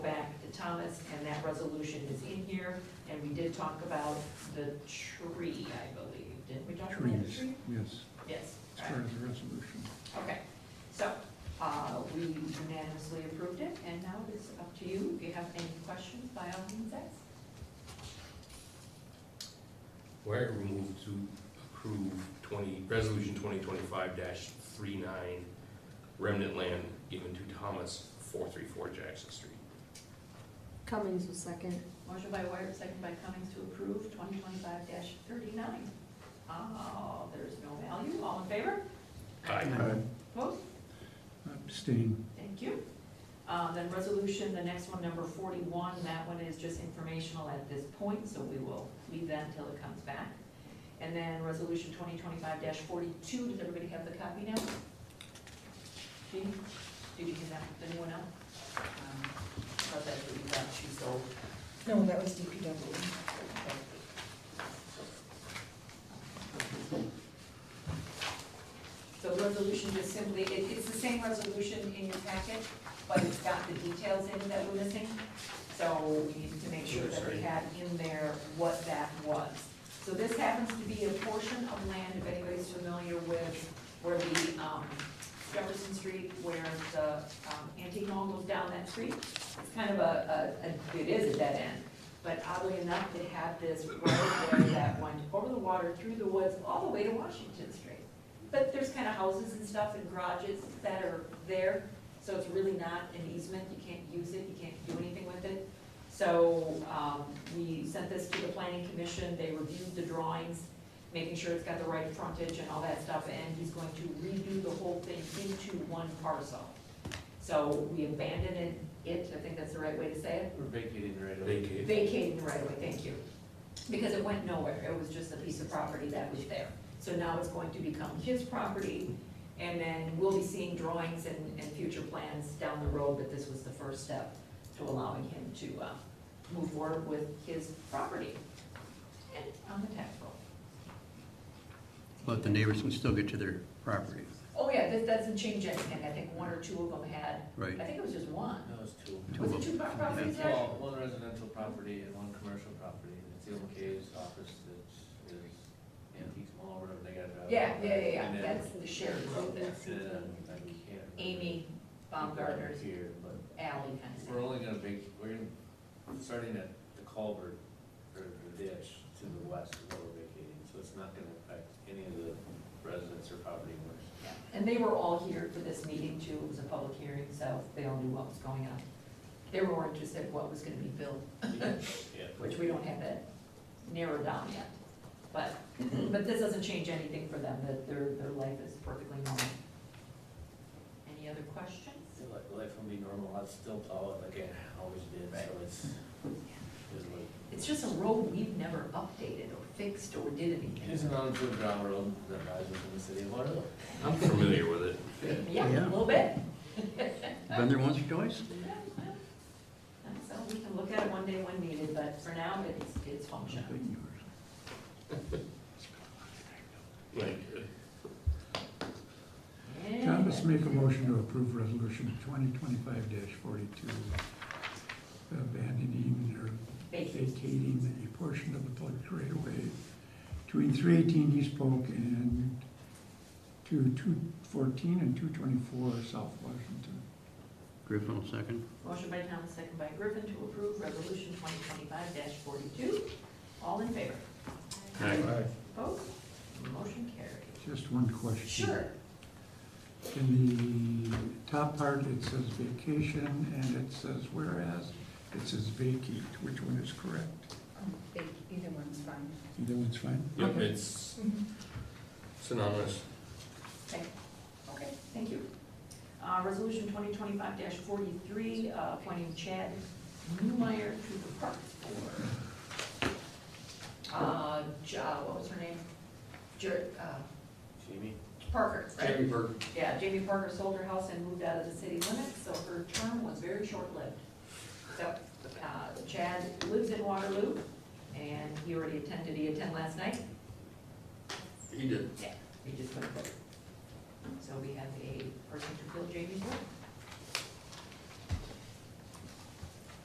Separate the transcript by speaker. Speaker 1: promise, and that resolution is in here, and we did talk about the tree, I believe, didn't we talk about the
Speaker 2: Trees,
Speaker 1: tree?
Speaker 2: yes,
Speaker 1: Yes,
Speaker 2: it's part of the resolution.
Speaker 1: okay, so, uh, we unanimously approved it, and now it's up to you, if you have any questions, by all means, ask.
Speaker 3: Why are we moved to approve twenty, resolution twenty twenty-five dash three-nine remnant land given to Thomas, four-three-four Jackson Street?
Speaker 4: Cummings was second.
Speaker 1: Motion by Wyatt, second by Cummings to approve twenty twenty-five thirty-nine. Uh, there's no value, all in favor?
Speaker 3: Aye.
Speaker 2: I
Speaker 1: Opposed?
Speaker 2: Abstain,
Speaker 1: Thank you. Uh, Then resolution, the next one, number 41, that one is just informational at this point, so we will leave that until it comes back. And then resolution 2025-42, does everybody have the copy now? Jean, did you get that, anyone else? Um, I thought that's what you got, she's old.
Speaker 5: No, that was DPW.
Speaker 1: So resolution just simply, it, it's the same resolution in your packet, but it's got the details in it that were missing. So we needed to make sure that we had in there what that was. So this happens to be a portion of land, if anybody's familiar with, where the, um, Jefferson Street, where the, um, antique mall goes down that street. It's kind of a, a, a- it is a dead end, but oddly enough, they have this roadway that went over the water, through the woods, all the way to Washington Street. But there's kind of houses and stuff and garages that are there, so it's really not an easement, you can't use it, you can't do anything with it. So, um, we sent this to the planning commission, they reviewed the drawings, making sure it's got the right frontage and all that stuff, and he's going to redo the whole thing into one parcel. So we abandoned it, I think that's the right way to say it,
Speaker 6: We're vacating right away.
Speaker 3: Vacated.
Speaker 1: vacating the right away. thank you. Because it went nowhere, it was just a piece of property that was there. So now it's going to become his property, and then we'll be seeing drawings and, and future plans down the road, but this was the first step to allowing him to, uh, move forward with his property and on the tax roll.
Speaker 7: But the neighbors can still get to their property,
Speaker 1: Oh, yeah, that doesn't change anything, I think one or two of them had,
Speaker 7: right?
Speaker 1: I think it was just one.
Speaker 6: That was two.
Speaker 7: Two
Speaker 1: Was
Speaker 7: of
Speaker 1: it two
Speaker 7: them.
Speaker 1: pro- properties
Speaker 7: Yeah.
Speaker 1: there?
Speaker 6: Well, one residential property and one commercial property, and it's the old K's office that is antiques mall, whatever they got. it out.
Speaker 1: Yeah, yeah, yeah, yeah,
Speaker 6: And then-
Speaker 1: that's the shared road there.
Speaker 6: And um, then, I can't. remember.
Speaker 1: Amy Baumgartner's
Speaker 6: Here, but
Speaker 1: alley kind of
Speaker 6: we're
Speaker 1: thing.
Speaker 6: only gonna vac, we're gonna, starting at the culvert or the ditch to the west is what we're vacating, so it's not gonna affect any of the residents or property owners.
Speaker 1: Yeah. And they were all here for this meeting too, it was a public hearing, so they all knew what was going on. They were more interested in what was gonna be built,
Speaker 6: Yeah.
Speaker 1: which we don't have that narrowed down yet. But,
Speaker 6: Mm-hmm.
Speaker 1: but this doesn't change anything for them, that their, their life is perfectly normal. Any other questions?
Speaker 6: Still, like, Life will be normal, I'd still plow it like I always did, so it's, it's like.
Speaker 1: It's just a road we've never updated or fixed or did
Speaker 6: It's
Speaker 1: anything.
Speaker 6: an unimproved gravel road that rises in the city of Waterloo.
Speaker 3: I'm familiar with it.
Speaker 1: Yeah, a
Speaker 7: Yeah.
Speaker 1: little bit.
Speaker 7: Been there once or twice?
Speaker 1: So we can look at it one day when needed, but for now, it's, it's functional.
Speaker 3: Right.
Speaker 2: Thomas, make a motion to approve resolution twenty twenty-five forty-two, abandoning or vacating a portion of the public right of way between three eighteen East Polk and two two fourteen and two twenty-four South Washington.
Speaker 7: Griffin will second.
Speaker 1: Motion by Thomas, second by Griffin to approve resolution twenty twenty-five forty-two. All in favor? Opposed? Motion carried.
Speaker 2: Just one question.
Speaker 1: Sure.
Speaker 2: In the top part, it says vacation, and it says whereas, it says vacate, which one is correct?
Speaker 5: Um, they- Either one's fine.
Speaker 2: Either one's fine?
Speaker 3: Yep,
Speaker 2: Okay.
Speaker 3: it's synonymous.
Speaker 1: Okay, thank you. Uh, resolution twenty twenty-five forty-three, uh, appointing Chad Newmeyer to the Parks Board. Uh, Ja, what was her name? Jer, uh,
Speaker 6: Jamie?
Speaker 1: Parker, right?
Speaker 3: Jamie Burke.
Speaker 1: Yeah, Jamie Parker sold her house and moved out of the city limits, so her term was very short-lived. So uh, Chad lives in Waterloo, and he already attended, he attend last night,
Speaker 3: He did.
Speaker 1: he just went vote. So we have a person to fill Jamie's role.